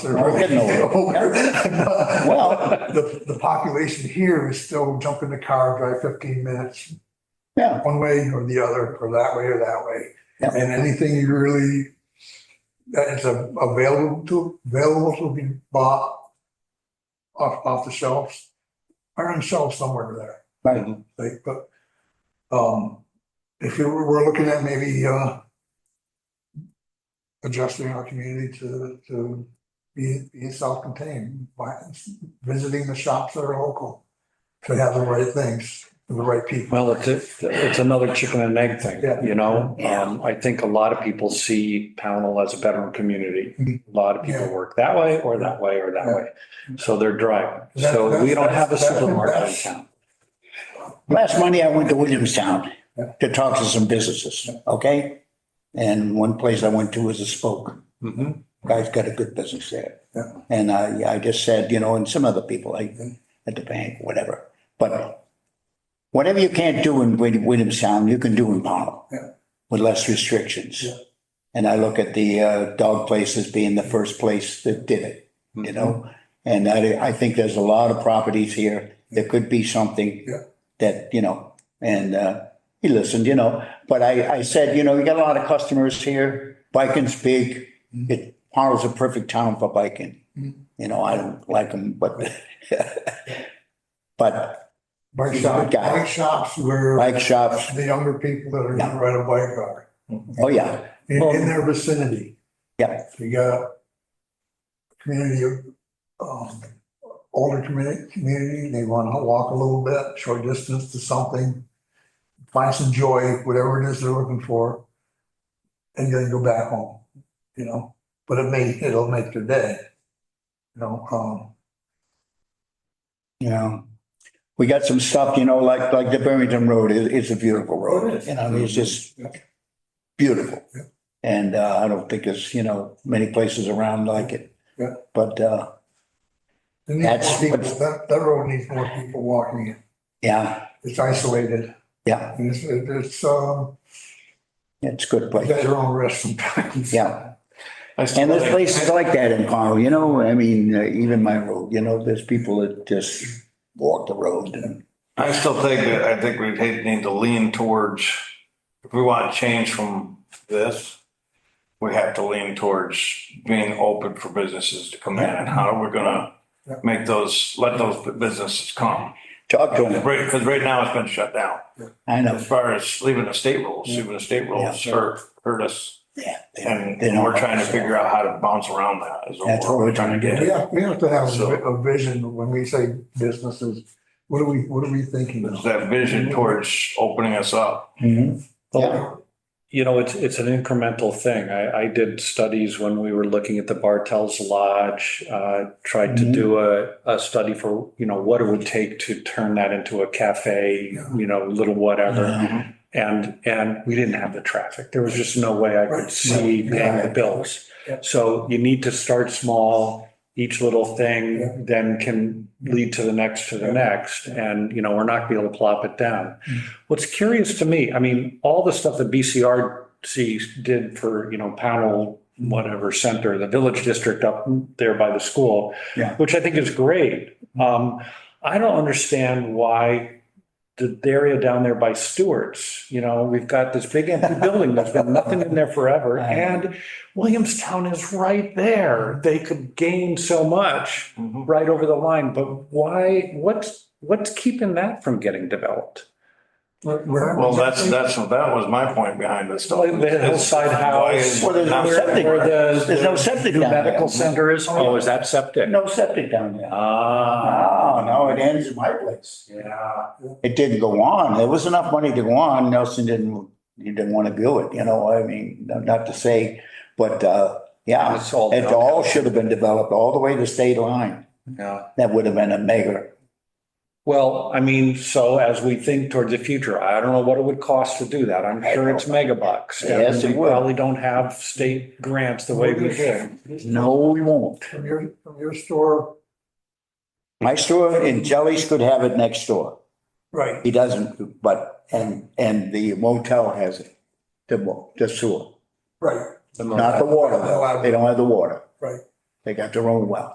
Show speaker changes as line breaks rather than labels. We're getting
over
Well,
The, the population here is still jump in the car, drive 15 minutes,
yeah,
one way or the other, or that way or that way.
Yeah.
And anything you really, that is a- available to, available to be bought off, off the shelves, are on shelves somewhere there.
right.
Like, but, um, if you were, we're looking at maybe, uh, adjusting our community to, to be, be self-contained by visiting the shops that are local to have the right things, for the right people.
Well, it's, a- it's another chicken and egg thing,
Yeah.
you know? Um, I think a lot of people see Pownell as a veteran community. A lot of people
Mm-hmm. Yeah.
work that way or that way or that
Yeah.
way. So they're driving.
That-
So we
that's-
don't have a
that's- that's-
supermarket in
that's-
town.
Last Monday, I went to Williamstown
Yeah.
to talk to some businesses, okay? And one place I went to was a spoke.
Mhm.
Guy's got a good business there.
Yeah.
And I, I just said, you know, and some other people, like at the bank, whatever, but whatever you can't do in Wil- Williamstown, you can do in Pownell.
Yeah.
With less restrictions.
Yeah.
And I look at the uh, dog place as being the first place that did it,
Mm-hmm.
you know? And I, I think there's a lot of properties here. There could be something
Yeah.
that, you know, and uh, he listened, you know. But I, I said, you know, you got a lot of customers here. Biking's big.
Mm-hmm.
It, Pownell's a perfect town for biking.
Mhm.
You know, I don't like them, but, but
Bike
He's a
shops,
good guy.
bike shops where
bike shops,
the younger people that are
Yeah.
gonna ride a bike are,
oh yeah,
in,
Well-
in their vicinity.
Yeah.
So You got a community of, um, older community, community, they want to walk a little bit, short distance to something, find some joy, whatever it is they're looking for, and then go back home, you know? But it may, it'll make their day, you know, um,
you know. We got some stuff, you know, like, like the Barrington Road is, is a
Oh,
beautiful road, you know, it's just beautiful.
Yeah.
And uh, I don't think there's, you know, many places around like it.
Yeah.
But uh,
it needs more
That's
people.
what-
that, that road needs more people walking it.
yeah,
It's isolated,
yeah,
and it's, it's, um,
it's a good
you
place,
got your own risk sometimes.
yeah.
I still
And there's
think-
places like that in Powell, you know, I mean, uh, even my road, you know, there's people that just walk the road and,
I still think that, I think we need to lean towards, if we want change from this, we have to lean towards being open for businesses to come in and how are we gonna make those, let those businesses come?
talk to them.
Right, because right now it's been shut down.
I know.
As far as leaving the state rules, leaving the state rules hurt, hurt us.
Yeah. they-
And
they don't
we're trying to
understand.
figure out how to bounce around that is
That's what we're trying to
We
get.
have, we have to have a vi-
So-
a vision when we say businesses. What are we, what are we thinking
There's
of?
that vision towards opening us up.
Mhm. Yeah.
You know, it's, it's an incremental thing. I, I did studies when we were looking at the Bartels Lodge, uh, tried to
Mm-hmm.
Mhm.
do a, a study for, you know, what it would take to turn that into a cafe,
Yeah.
you know, little whatever.
Yeah.
And, and we didn't have the traffic. There was just no way I
Right.
could see paying the
Right.
bills.
Yeah.
So you need to start small. Each little
Yeah.
thing then can lead to the next, to the
Yeah.
next. And, you know, we're not gonna be able to plop it down.
Mm.
What's curious to me, I mean, all the stuff that BCRC did for, you know, Pownell, whatever center, the village district up there by the school.
Yeah.
Which I think is great. Um, I don't understand why the area down there by Stewart's, you know, we've got this big empty building that's been nothing in there forever.
I know.
And Williamstown is right there. They could gain so much
Mm-hmm.
Mhm.
right over the line, but why, what's, what's keeping that from getting developed?
Well, that's, that's, that was my point behind this stuff.
Like the hillside
Why is-
house.
Well, there's no
where-
septic.
where the-
There's no
the
septic
new
down there.
Medical center is, oh, is that septic?
No septic down there.
Ah,
Oh, no, it ends at my place.
yeah.
It didn't go on. There was enough money to go on. Nelson didn't, he didn't want to do it, you know, I mean, not to say, but, uh, yeah.
It's all
It
downhill.
all should have been developed all the way to state line.
Yeah.
That would have been a mega.
Well, I mean, so as we think towards the future, I don't know what it would cost to do that. I'm sure it's mega bucks. and
Yes, it
we
would.
Probably don't have state grants the way we did.
No, we won't.
From your, from your store,
My store in Jellies could have it next door.
right,
He doesn't, but, and, and the motel has it, the, mo- the sewer,
right.
not the water. though. They don't have the water.
Right.
They got their own well.